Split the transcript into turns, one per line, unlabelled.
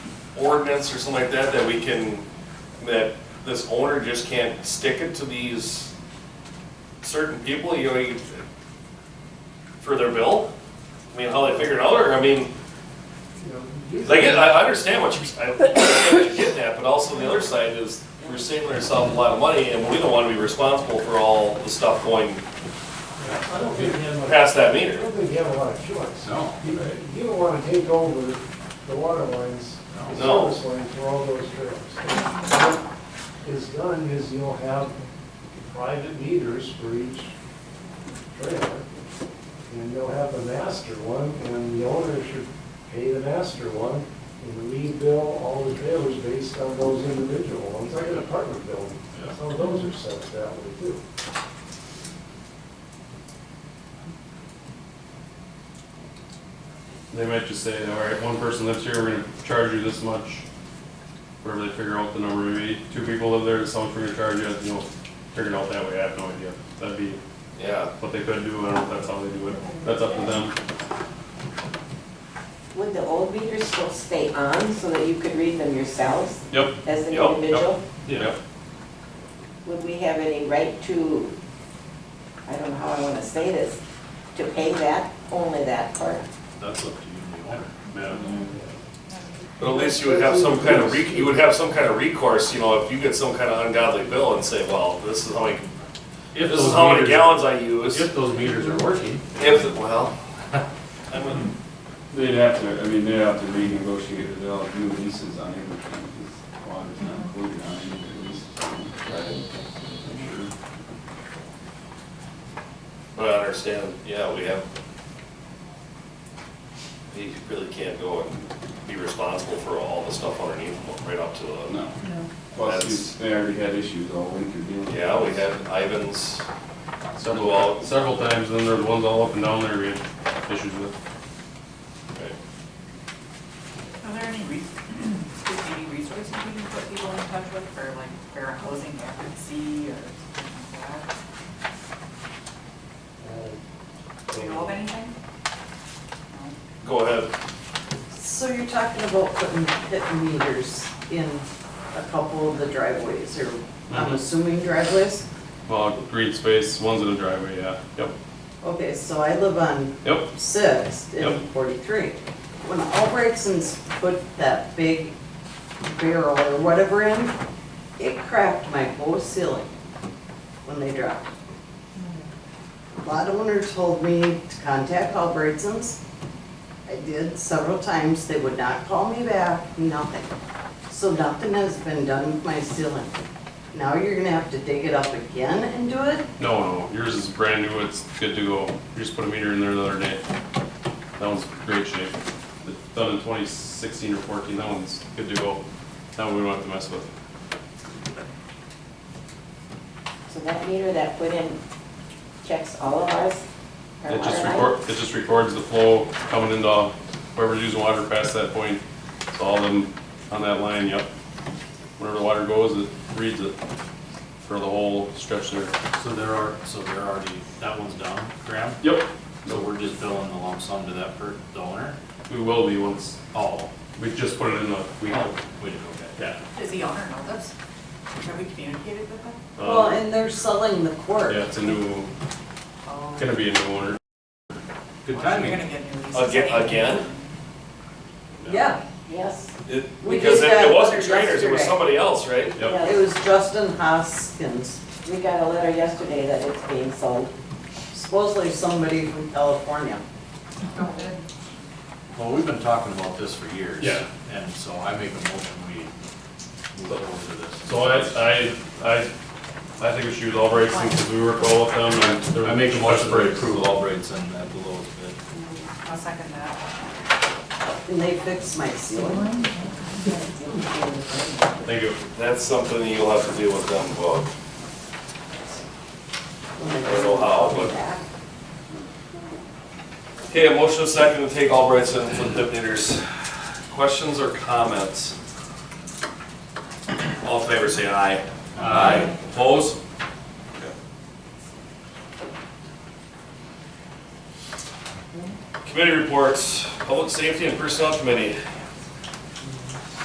ordinance or something like that, that we can, that this owner just can't stick it to these certain people, you know, you- for their bill? I mean, how they figure it out, or, I mean, like, I I understand what you're, I understand what you're getting at, but also the other side is, we're saving ourselves a lot of money, and we don't wanna be responsible for all the stuff going
I don't think you have, a-
past that
I
meter.
don't think you have a lot of choice.
No,
You,
right.
you don't wanna take over the water lines, the
No.
service lines for all those trails. What is done is you'll have private meters for each trailer. And you'll have the master one, and the owner should pay the master one, and we bill all the trailers based on those individual ones, like an apartment building.
Yeah.
Some of those are set that way too.
They might just say, all right, one person lives here, we're gonna charge you this much. Wherever they figure out the number, maybe two people live there, so much we're gonna charge you, you know, figure it out that way, I have no idea. That'd be
Yeah.
what they could do, I don't know if that's how they do it, that's up to them.
Would the old meters still stay on so that you could read them yourselves
Yep,
as
Yep,
an
yep.
individual?
yeah,
Would we have any right to, I don't know how I want to say this, to pay that, only that part?
that's up to you, the owner.
yeah.
But at least you would have some kind of, re- you would have some kind of recourse, you know, if you get some kind of ungodly bill and say, well, this is how many, this
If
is
those
how many
meters-
gallons I use.
If those meters are working.
If, well, I mean,
They'd have to, I mean, they'd have to renegotiate, or they'll have new leases on everything, because water's not included on any of the leases. Right.
but I understand, yeah, we have. You really can't go and be responsible for all the stuff underneath, right up to the.
No. Plus,
That's-
you- they already had issues all winter dealing with
Yeah, we
this.
had Ivan's,
Several, out- several times, and then there's ones all up and down there we had issues with.
right,
Are there any, res- excuse me, any resources we can put people in touch with for like fair housing advocacy or something like that? Do you know of anything? No.
go ahead,
So you're talking about putting pit meters in a couple of the driveways, or I'm
Mhm.
assuming driveways?
Well, green space, ones in the driveway, yeah, yep,
Okay, so I live on
yep,
Sixth and
Yep.
forty-three. When Albrechtson's put that big barrel or whatever in, it cracked my whole ceiling when they dropped. it. Lot owner told me to contact Albrechtson's. I did several times, they would not call me back, nothing. So nothing has been done with my ceiling. Now you're gonna have to dig it up again and do it?
no, no, yours is brand new, it's good to go, you just put a meter in there the other day. That one's great shape, The- done in twenty sixteen or fourteen, that one's good to go, that one we don't have to mess with.
So that meter that put in checks all of ours? our
It just
water line?
record, it just records the flow coming into whoever's using water past that point, so all them on that line, yep. Wherever the water goes, it reads it for the whole stretch there.
So there are, so they're already, that one's done, Graham?
Yep,
So we're just billing the lump sum to that per, the owner?
we will be once,
Oh,
we just put it in the,
we,
we,
we, okay, yeah.
Does the owner know this? Have we communicated with them?
Well,
uh,
and they're selling the
yeah,
quart.
it's a new,
Oh.
gonna be a new owner.
Good
Well, You're
timing.
gonna get new leases.
Aga-
anyway.
again?
Yeah,
Yes,
It-
We did
because it-
that
it wasn't
letter
trainers, it was
yesterday.
somebody else, right?
Yep.
It
yes.
was Justin Hoskins.
We got a letter yesterday that it's being sold.
Supposedly somebody from California.
Oh, good.
Well, we've been talking about this for years.
Yeah.
And so I make a motion, we move over to this.
So I, I, I, I think we should use all breaks since we work well with them and. they're-
I make a motion to approve Albright's and that below bid.
I'll second that.
And they fixed my ceiling.
Thank you.
That's something you'll have to deal with them about.
when they-
I don't know how, but- Okay, a motion is second to take Albright's and flip dip meters. Questions or comments? All in favor, say aye. Aye. Opposed? Okay. Committee reports, Public Safety and Personnel Committee.